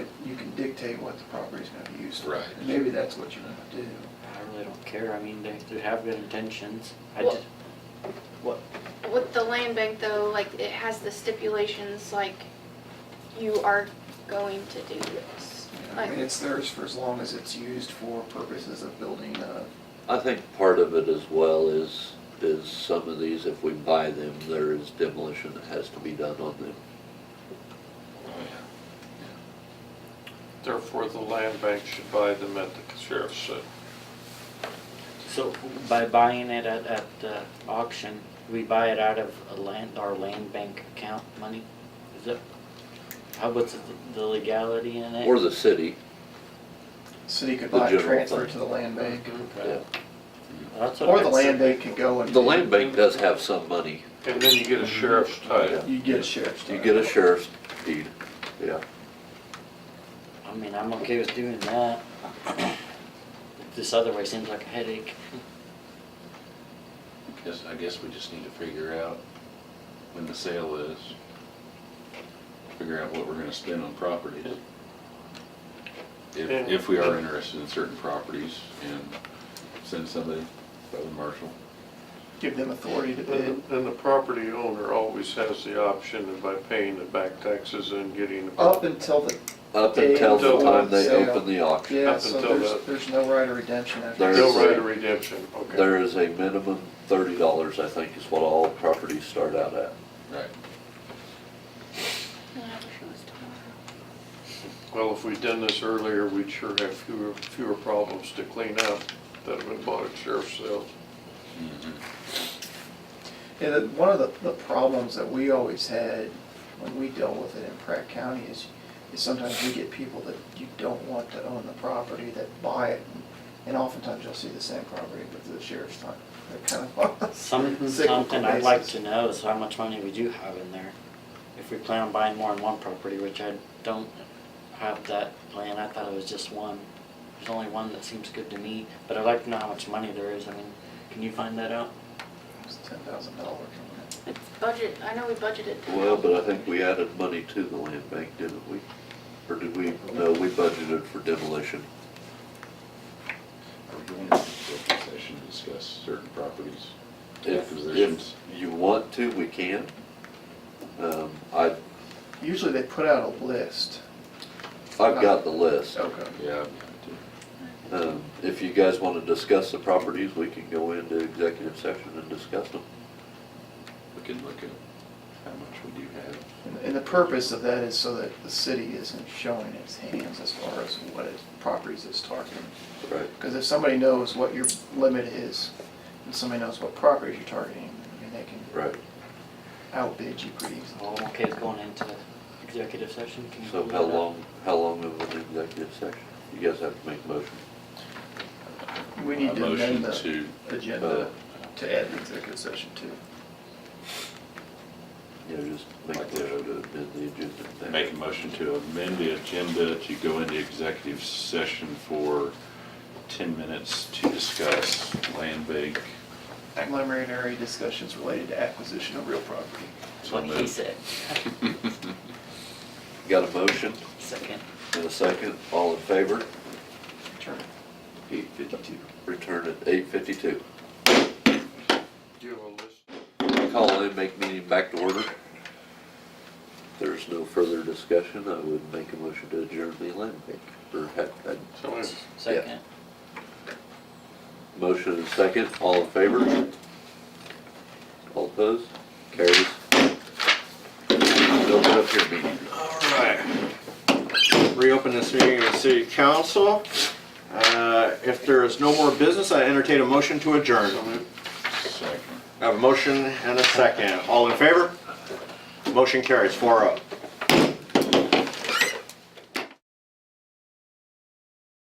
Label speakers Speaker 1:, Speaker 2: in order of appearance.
Speaker 1: dictate what the property's gonna be used for.
Speaker 2: Right.
Speaker 1: And maybe that's what you wanna do.
Speaker 3: I really don't care, I mean, they, they have good intentions, I
Speaker 4: Well-
Speaker 3: just, what,
Speaker 4: With the land bank though, like it has the stipulations like you are going to do this.
Speaker 1: You know, I
Speaker 4: Like,
Speaker 1: mean, it's theirs for as long as it's used for purposes of building a.
Speaker 5: I think part of it as well is, is some of these, if we buy them, there is demolition that has to be done on them.
Speaker 6: Therefore, the land bank should buy them at the sheriff's sale.
Speaker 3: so by buying it at, at uh, auction, we buy it out of a land, our land bank account money? Is it, how, what's the- the legality in it?
Speaker 5: Or the city,
Speaker 1: City could
Speaker 5: The
Speaker 1: buy,
Speaker 5: general
Speaker 1: transfer
Speaker 5: fund.
Speaker 1: to the land bank,
Speaker 5: yeah.
Speaker 3: Okay. That's what
Speaker 1: or
Speaker 3: I
Speaker 1: the
Speaker 3: said.
Speaker 1: land bank could go and.
Speaker 5: The land bank does have some money.
Speaker 6: And then you get a sheriff's title.
Speaker 1: You get a sheriff's.
Speaker 5: You get a sheriff's deed, yeah.
Speaker 3: I mean, I'm okay with doing that. This other way seems like a headache.
Speaker 2: Guess, I guess we just need to figure out when the sale is. Figure out what we're gonna spend on properties. If,
Speaker 6: Yeah.
Speaker 2: if we are interested in certain properties and send somebody, by the marshal.
Speaker 1: Give them authority to bid.
Speaker 6: And and the property owner always has the option of by paying the back taxes and getting. the-
Speaker 1: Up until the,
Speaker 5: Up until the time they
Speaker 1: Sale.
Speaker 5: open the auction,
Speaker 1: yeah,
Speaker 6: Up
Speaker 1: so
Speaker 6: until
Speaker 1: there's,
Speaker 6: the-
Speaker 1: there's no right of redemption after.
Speaker 5: There's-
Speaker 6: No right of redemption, okay.
Speaker 5: there is a minimum thirty dollars, I think, is what all properties start out at.
Speaker 2: Right.
Speaker 4: I wish it was tomorrow.
Speaker 6: Well, if we'd done this earlier, we'd sure have fewer, fewer problems to clean up that have been bought at sheriff's sales.
Speaker 1: And that- one of the, the problems that we always had when we dealt with it in Pratt County is, is sometimes you get people that you don't want to own the property that buy it. And oftentimes you'll see the same property, but the sheriff's not, they're kind of. on a
Speaker 3: Some,
Speaker 1: cyclical
Speaker 3: something I'd like
Speaker 1: basis.
Speaker 3: to know is how much money we do have in there. If we plan on buying more than one property, which I don't have that plan, I thought it was just one. There's only one that seems good to me, but I'd like to know how much money there is, I mean, can you find that out?
Speaker 1: It's ten thousand dollars on that.
Speaker 4: It's budget, I know we budgeted.
Speaker 5: Well, but I think we added money to the land bank, didn't we? Or did we, no, we budgeted for demolition.
Speaker 2: Are we going to executive session to discuss certain properties?
Speaker 5: If, if
Speaker 2: Acquisitions.
Speaker 5: you want to, we can. Um, I,
Speaker 1: Usually they put out a list.
Speaker 5: I've got the list.
Speaker 1: Okay.
Speaker 2: Yeah.
Speaker 5: Um, if you guys wanna discuss the properties, we can go into executive session and discuss them.
Speaker 2: We can look at how much we do have.
Speaker 1: And- And the purpose of that is so that the city isn't showing its hands as far as what its properties it's targeting.
Speaker 5: Right.
Speaker 1: Because if somebody knows what your limit is, and somebody knows what properties you're targeting, I mean, they can
Speaker 5: Right,
Speaker 1: outbid you pretty easily.
Speaker 3: Oh, okay, it's going into executive session, can you?
Speaker 5: so
Speaker 3: find
Speaker 5: how
Speaker 3: that out?
Speaker 5: long, how long of an executive session? You guys have to make a motion.
Speaker 1: We need
Speaker 2: A
Speaker 1: to amend the
Speaker 2: Motion
Speaker 1: agenda to add the executive session too.
Speaker 5: You know, just make a motion to amend the agenda.
Speaker 2: to, make a motion to amend the agenda to go into executive session for ten minutes to discuss land bank.
Speaker 1: Preliminary discussions related to acquisition of real property.
Speaker 2: So
Speaker 3: What he
Speaker 2: moved.
Speaker 3: said,
Speaker 5: Got a motion
Speaker 3: second.
Speaker 5: and a second, all in favor?
Speaker 1: Turn it.
Speaker 5: Eight fifty-two. Return at eight fifty-two.
Speaker 6: Do you have a list?
Speaker 5: Call in, make meeting back to order. If there's no further discussion, I would make a motion to adjourn the land bank. Or had, had
Speaker 6: So if-
Speaker 3: Second.
Speaker 5: motion and second, all in favor? All opposed? Carries. Open up your meeting.
Speaker 7: Alright. Reopen this meeting of the city council. Uh, If there is no more business, I entertain a motion to adjourn.
Speaker 2: Second.
Speaker 7: I have a motion and a second. All in favor? Motion carries four oh.